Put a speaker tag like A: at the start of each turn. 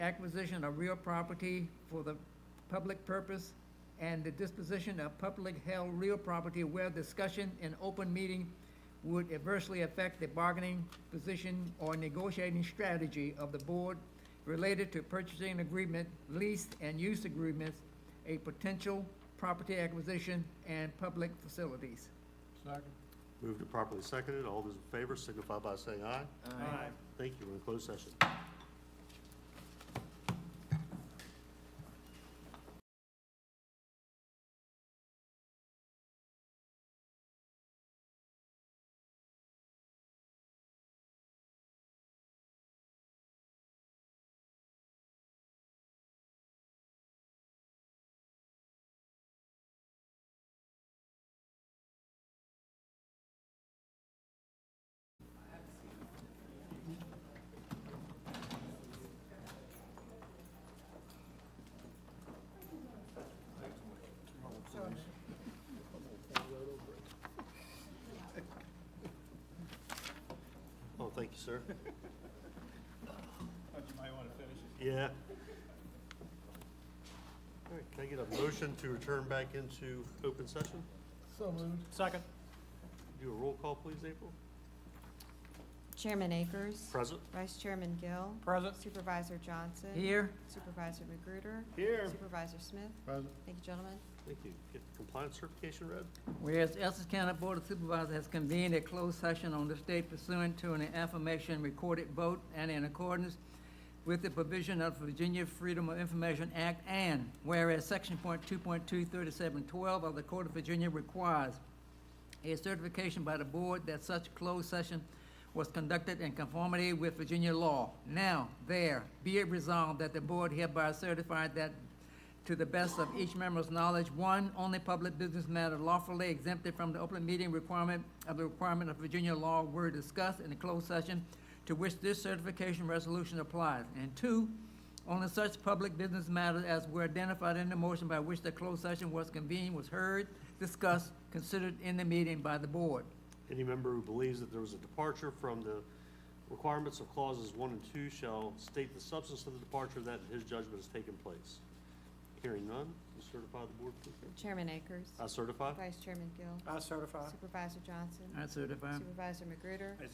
A: acquisition of real property for the public purpose, and the disposition of public held real property where discussion in open meeting would adversely affect the bargaining position or negotiating strategy of the board related to purchasing agreement, lease and use agreements, a potential property acquisition, and public facilities.
B: Second.
C: Moved and properly seconded. All those in favor signify by saying aye.
B: Aye.
C: Thank you. We're in closed session. Oh, thank you, sir.
B: Thought you might want to finish it.
C: Yeah. All right, can I get a motion to return back into open session?
B: So moved. Second.
C: Do a roll call, please, April.
D: Chairman Akers.
C: Present?
D: Vice Chairman Gill.
B: Present.
D: Supervisor Johnson.
A: Here?
D: Supervisor Magruder.
B: Here.
D: Supervisor Smith.
B: Present.
D: Thank you, gentlemen.
C: Thank you. Get the compliance certification read.
A: Whereas Essex County Board of Supervisors has convened a closed session on this day pursuant to an affirmation recorded vote and in accordance with the provision of Virginia Freedom of Information Act, and whereas Section point two point two thirty-seven twelve of the Code of Virginia requires a certification by the board that such closed session was conducted in conformity with Virginia law. Now, there, be it resolved that the board hereby certified that to the best of each member's knowledge, one, only public business matter lawfully exempted from the open meeting requirement of the requirement of Virginia law were discussed in the closed session to which this certification resolution applies. And two, only such public business matters as were identified in the motion by which the closed session was convened was heard, discussed, considered in the meeting by the board.
C: Any member who believes that there was a departure from the requirements of clauses one and two shall state the substance of the departure that in his judgment has taken place. Hearing none, you certify the board, please. ma'am.
D: Chairman Akers.
B: Uh-huh.
C: I certify.
D: Vice Chairman Gill.
B: I certify.
D: Supervisor Johnson.
B: Uh-huh.
A: I certify.
D: Supervisor Magruder.